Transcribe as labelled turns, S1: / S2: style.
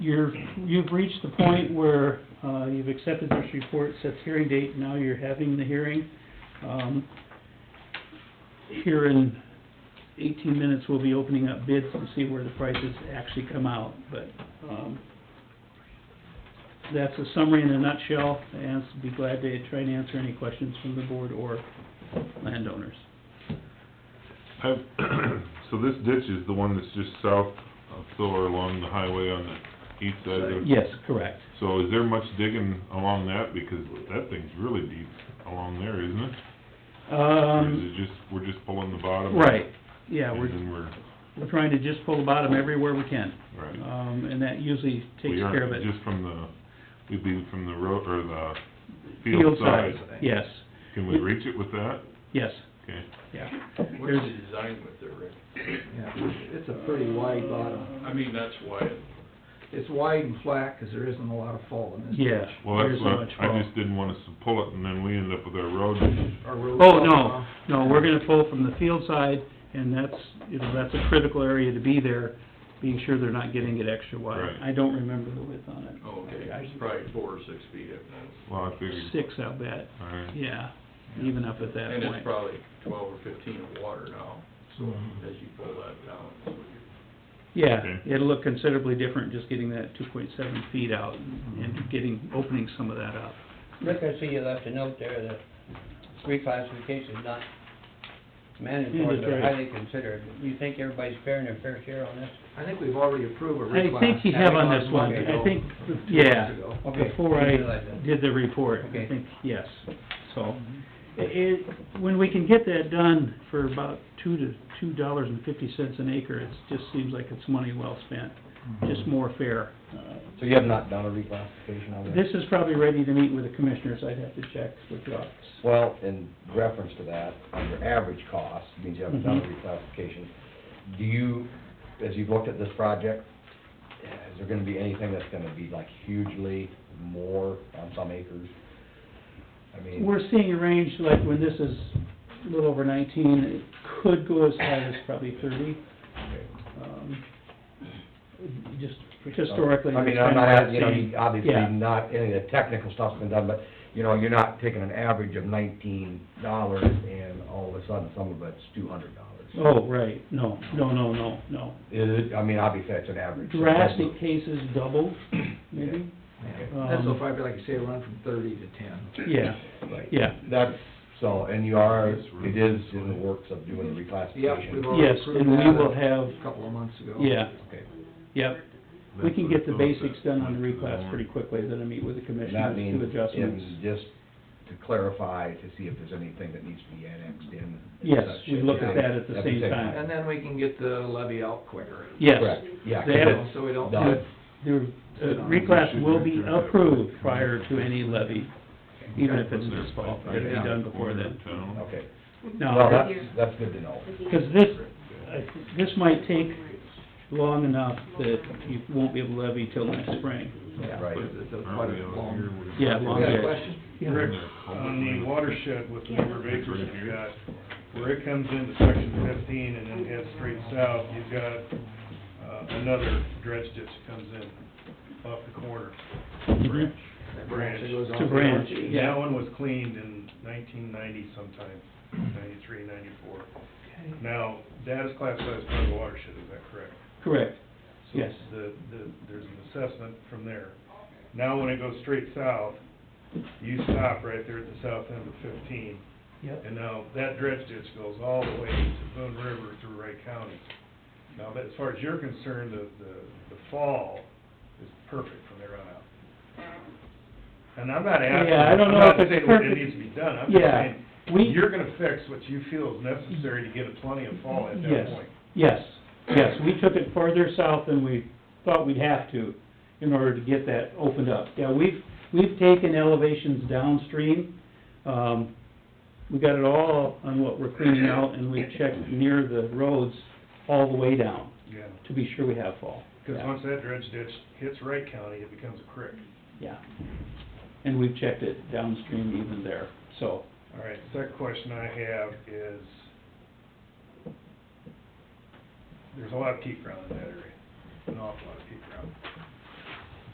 S1: you're, you've reached the point where, uh, you've accepted this report, set the hearing date, now you're having the hearing. Um, here in eighteen minutes, we'll be opening up bids to see where the prices actually come out, but, um, that's a summary in a nutshell, and be glad to try and answer any questions from the board or landowners.
S2: I've, so this ditch is the one that's just south of Thor along the highway on the east side of the...
S1: Yes, correct.
S2: So is there much digging along that, because that thing's really deep along there, isn't it? Or is
S1: Um,
S2: it just, we're just pulling the bottom?
S1: right, yeah,
S2: And
S1: we're,
S2: then we're,
S1: we're trying to just pull the bottom everywhere we can.
S2: right.
S1: Um, and that usually takes
S2: We aren't
S1: care of it.
S2: Just from the, we'd be from the road, or the
S1: Field
S2: field side.
S1: size, Yes,
S2: Can we reach it with that?
S1: yes,
S2: Okay.
S1: yeah.
S3: What's the design with there, Rick?
S4: Yeah, it's a pretty wide bottom.
S3: I mean, that's why it
S4: It's wide and flat, 'cause there isn't a lot of fall in this
S1: Yeah.
S4: ditch.
S2: Well, that's
S1: There's so
S2: what,
S1: much
S2: I
S1: fall.
S2: just didn't want us to pull it and then we end up with our road.
S4: Our road's
S1: Oh,
S4: all
S1: no,
S4: off.
S1: no, we're gonna pull from the field side, and that's, you know, that's a critical area to be there, being sure they're not getting it extra wide.
S2: Right.
S1: I don't remember the width on it.
S3: Oh, okay,
S1: I-
S3: it's probably four or six feet at most.
S2: Well, I figured,
S1: Six, I'll bet,
S2: all right.
S1: yeah, even up at that
S3: And it's
S1: point.
S3: probably twelve or fifteen of water now, so
S4: Mhm.
S3: as you pull that down, so you-
S1: Yeah,
S2: Okay.
S1: it'll look considerably different just getting that two point seven feet out and
S2: Mm-hmm.
S1: and getting, opening some of that up.
S5: Rick, I see you left a note there that reclassification is not mandatory,
S1: Yeah, that's
S5: but
S1: right.
S5: highly considered. You think everybody's fair and their fair share on this?
S4: I think we've already approved a reclass.
S1: I think you have on this one,
S4: Months
S1: I
S4: ago,
S1: think,
S4: or two
S1: yeah,
S4: months ago.
S5: Okay,
S1: before
S5: I
S1: I
S5: didn't realize that.
S1: did the report, I
S5: Okay.
S1: think, yes, so. i-
S6: Mm-hmm.
S1: It, when we can get that done for about two to, two dollars and fifty cents an acre, it just seems like it's money well spent,
S6: Mm-hmm.
S1: just more fair. Uh,
S6: So you have not done a reclassification on
S1: This
S6: that?
S1: is probably ready to meet with the commissioners, I'd have to check with the office.
S6: Well, in reference to that, under average cost, means you haven't done a
S1: Mm-hmm.
S6: reclassification, do you, as you've looked at this project, is there gonna be anything that's gonna be like hugely more on some acres? I mean,
S1: We're seeing a range, like when this is a little over nineteen, it could go as high as probably thirty. Um, Just historically.
S6: I mean,
S1: that's
S6: I'm
S1: kinda
S6: not,
S1: what
S6: asking, you know,
S1: seeing.
S6: you- obviously,
S1: Yeah.
S6: not, any of the technical stuff's been done, but, you know, you're not taking an average of nineteen dollars and all of a sudden, some of it's two hundred dollars.
S1: Oh, right, no, no, no, no, no.
S6: Is it, I mean, obviously, that's an average.
S1: Drastic cases double, maybe?
S6: Okay.
S4: That's so
S1: Um,
S4: far, like you say, run from thirty to ten.
S1: Yeah,
S6: Right.
S1: yeah,
S6: That's, so, and you are, it is in the works of doing the
S4: Yep, we've
S6: reclassification.
S4: already
S1: Yes,
S4: approved
S1: and we
S4: that
S1: will
S4: a
S1: have-
S4: Couple of months ago.
S1: yeah,
S6: Okay,
S1: yep. We can get the basics done on the reclass pretty quickly, then I meet with the
S6: and that
S1: commissioners,
S6: means,
S1: do adjustments.
S6: and just to clarify, to see if there's anything that needs to be annexed in.
S1: Yes, we look at that at the same time.
S4: And then we can get the levy out quicker.
S1: Yes,
S6: Correct, yeah.
S1: They
S4: you
S1: had
S4: know,
S1: it
S4: So we don't.
S6: done.
S1: the the reclass will be approved prior to any levy, even if it's this fall, it'll be done before then.
S6: Okay, well,
S1: No,
S6: that's, that's good to know.
S1: because this, I- this might take long enough that you won't be able to levy till next spring.
S4: Yeah,
S6: Right.
S4: because it's a- quite a long.
S1: Yeah,
S4: You
S1: long
S4: got a
S1: day.
S4: question?
S7: Rick, on the watershed with the number of acres you've got, where it comes into section fifteen and then heads straight south, you've got, uh, another dredge ditch that comes in off the corner.
S1: Mhm.
S4: That
S7: Branch.
S4: that goes
S1: It's
S4: off
S1: a
S4: the
S1: branch,
S4: orchard.
S7: And
S1: yeah.
S7: that one was cleaned in nineteen ninety sometime, ninety-three, ninety-four. Now, that is classified as part of the watershed, is that correct?
S1: Correct,
S7: So
S1: Yes.
S7: The, the, there's an assessment from there. Now, when it goes straight south, you stop right there at the south end of fifteen.
S1: Yep.
S7: And now, that dredge ditch goes all the way to Boone River through Wright County. Now, but as far as you're concerned, the, the, the fall is perfect from there on out. And I'm not asking,
S1: Yeah, I don't
S7: I'm
S1: know
S7: not
S1: if it's
S7: saying what it
S1: perfect.
S7: needs to be done, I'm just
S1: Yeah,
S7: saying,
S1: we,
S7: you're gonna fix what you feel is necessary to get a plenty of fall at that
S1: Yes.
S7: point.
S1: yes, yes, we took it farther south than we thought we'd have to in order to get that opened up. Yeah, we've, we've taken elevations downstream, um, we got it all on what we're cleaning out, and we checked near the roads all the way down
S7: Yeah.
S1: to be sure we have fall.
S7: Because
S1: Yeah.
S7: once that dredge ditch hits Wright County, it becomes a creek.
S1: Yeah, and we've checked it downstream even there, so,
S7: All right, second question I have is, there's a lot of peat ground in that area, an awful lot of peat ground.